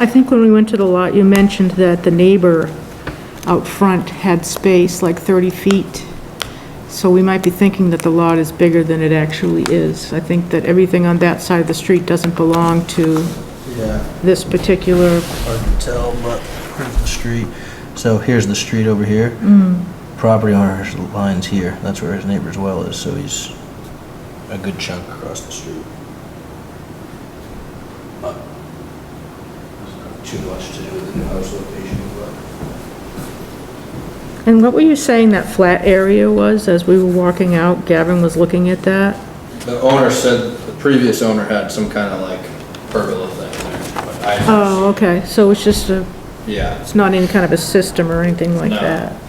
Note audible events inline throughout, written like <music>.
I think when we went to the lot, you mentioned that the neighbor out front had space, like 30 feet. So we might be thinking that the lot is bigger than it actually is. I think that everything on that side of the street doesn't belong to Yeah, this particular, hard to tell, but here's the street. So here's the street over here. Property owner's line's here. That's where his neighbor's well is, so he's a good chunk across the street. But there's not Too much to do with the new house location, but and what were you saying that flat area was as we were walking out? Gavin was looking at that? The owner said, the previous owner had some kind of like pergola thing there, but I, Oh, okay, so it's just a, yeah. it's not in kind of a system or anything like No. that?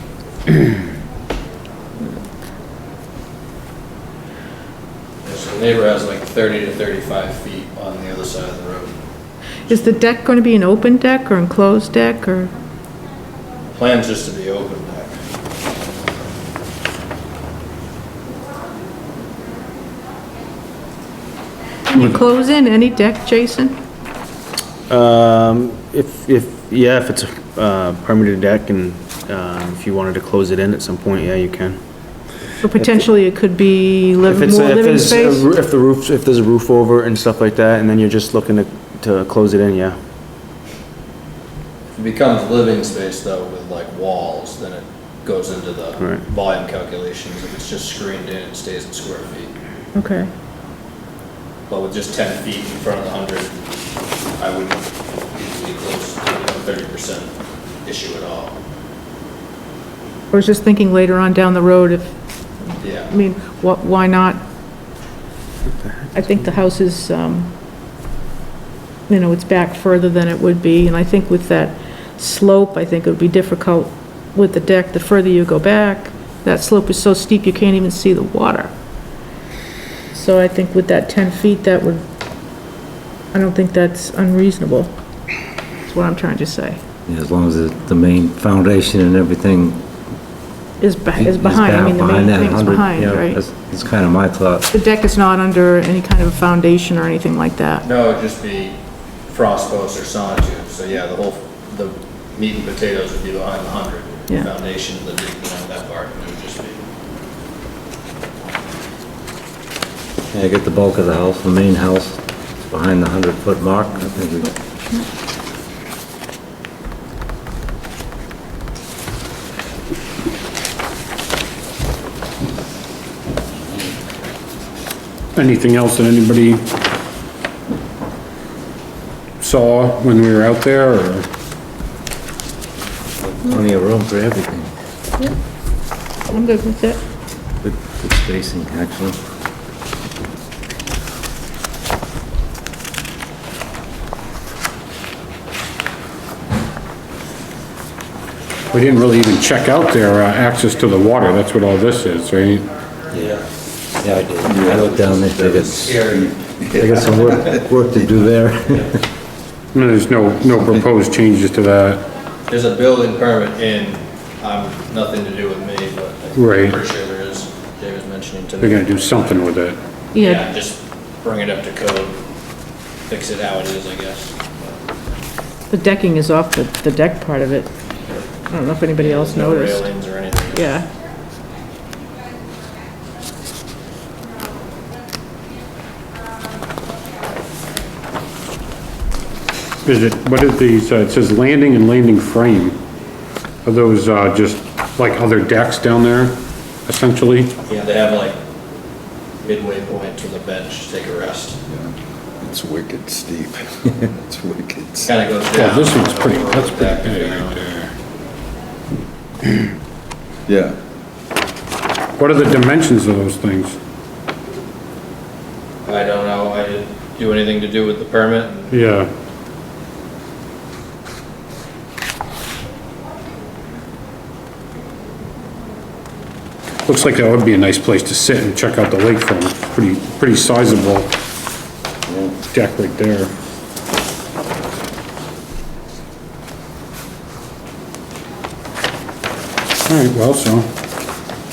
So the neighbor has like thirty to thirty-five feet on the other side of the road. Is the deck going to be an open deck or enclosed deck or? Plan's just to be open back. Can you close in any deck, Jason? Um, if, if, yeah, if it's a uh, permitted deck and, uh, if you wanted to close it in at some point, yeah, you can. Or potentially it could be If living, it's, more if living it's, a space? roo- if the roof, if there's a roof over it and stuff like that, and then you're just looking to, to close it in, yeah. If it becomes living space though with like walls, then it goes into the Right. volume calculations. If it's just screened in, it stays in square feet. Okay. But with just ten feet in front of the hundred, I wouldn't be close to thirty percent issue at all. I was just thinking later on down the road if, I Yeah, mean, what, why not? I think the house is, um, you know, it's back further than it would be, and I think with that slope, I think it would be difficult with the deck, the further you go back, that slope is so steep you can't even see the water. So I think with that 10 feet, that would, I don't think that's unreasonable, is what I'm trying to say, Yeah, As long as the the main foundation and everything is be- is is behind, I back mean, the main behind that thing's 100. behind, yeah, right? that's- That's kind of my thought. The deck is not under any kind of foundation or anything like that. no, it'd just be frost posts or sonotubes, so yeah, the whole, the meat and potatoes would be behind the hundred. Yeah. Foundation, the, you know, that part, it would just be. Yeah, get the bulk of the house, the main house, behind the 100-foot mark, I think we Anything else that anybody saw when we were out there, or? plenty of room for everything. I'm good with it. Good good spacing, actually. We didn't really even check out their uh, access to the water, that's what all this is, right? Yeah, I did. I looked down there, they got, they got some work, work to do there. No, There's no, no proposed changes to that. There's a building permit in, um, nothing to do with me, but I'm Right. pretty sure there is, Dave was mentioning to me. They're gonna do something with it. Yeah, Yeah, just bring it up to code, fix it how it is, I guess. the decking is off the, the deck part of it. I don't know if anybody else No noticed. railings or anything. Yeah, Is it, what is these, uh, it says landing and landing frame. Are those, uh, just like other decks down there, essentially? Yeah, they have like midway point to the bench, to take a rest. It's wicked steep. <laughs> It's wicked. steep. Kind of goes down. Well, this one's pretty, that's Back pretty big down. right there. Yeah, What are the dimensions of those things? I don't know, I didn't do anything to do with the permit. Yeah. Looks like that would be a nice place to sit and check out the lake from. Pretty, pretty sizable deck right there. All right, well, so